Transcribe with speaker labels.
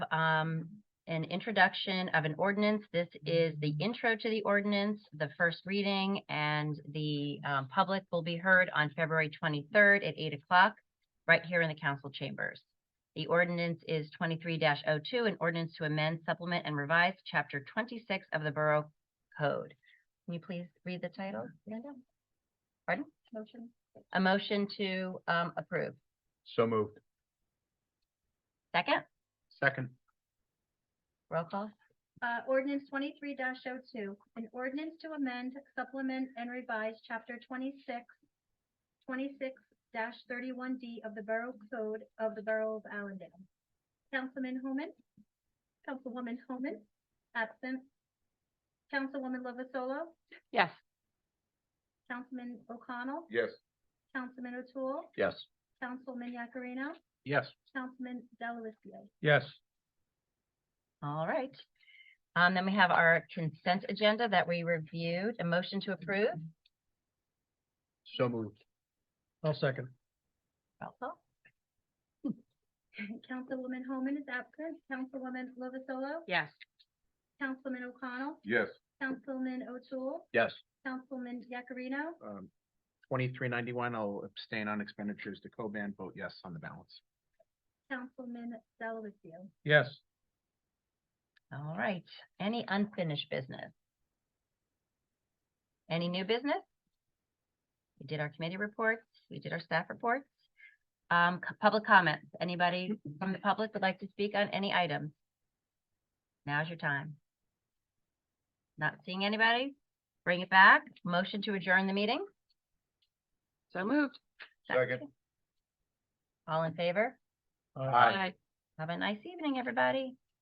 Speaker 1: um, an introduction of an ordinance. This is the intro to the ordinance, the first reading, and the um, public will be heard on February twenty-third at eight o'clock, right here in the council chambers. The ordinance is twenty-three 2 an ordinance to amend, supplement, and revise chapter twenty-six of the Borough Code. Can you please read the title? Linda? Pardon? Motion. A motion to um, approve.
Speaker 2: So moved.
Speaker 1: Second,
Speaker 2: Second.
Speaker 1: roll call.
Speaker 3: Uh, ordinance twenty-three 2 an ordinance to amend, supplement, and revise chapter 26, 26 thirty-one D of the Borough Code of the Borough of Allendale. Councilman Homan? Councilwoman Homan? Absent. Councilwoman Lovasolo?
Speaker 1: Yes.
Speaker 3: Councilman O'Connell?
Speaker 2: Yes.
Speaker 3: Councilman O'Toole?
Speaker 2: Yes.
Speaker 3: Councilman Yakarino?
Speaker 2: Yes.
Speaker 3: Councilman Delavatio?
Speaker 2: Yes.
Speaker 1: All right. Um, then we have our consent agenda that we reviewed, a motion to approve.
Speaker 2: So moved. I'll second.
Speaker 1: Roll call.
Speaker 3: Councilwoman Homan is absent. Councilwoman Lovasolo?
Speaker 1: Yes.
Speaker 3: Councilman O'Connell?
Speaker 2: Yes.
Speaker 3: Councilman O'Toole,
Speaker 2: Yes.
Speaker 3: Councilman Yakarino,
Speaker 4: um, twenty-three ninety-one, I'll abstain on expenditures to Coban, vote yes on the balance.
Speaker 3: Councilman Delavatio.
Speaker 2: Yes.
Speaker 1: All right. Any unfinished business? Any new business? We did our committee reports, we did our staff reports. Um, c- public comments. Anybody from the public would like to speak on any item? Now's your time. Not seeing anybody? Bring it back. Motion to adjourn the meeting?
Speaker 5: So moved.
Speaker 2: Second.
Speaker 1: All in favor?
Speaker 2: Aye.
Speaker 1: Have a nice evening, everybody.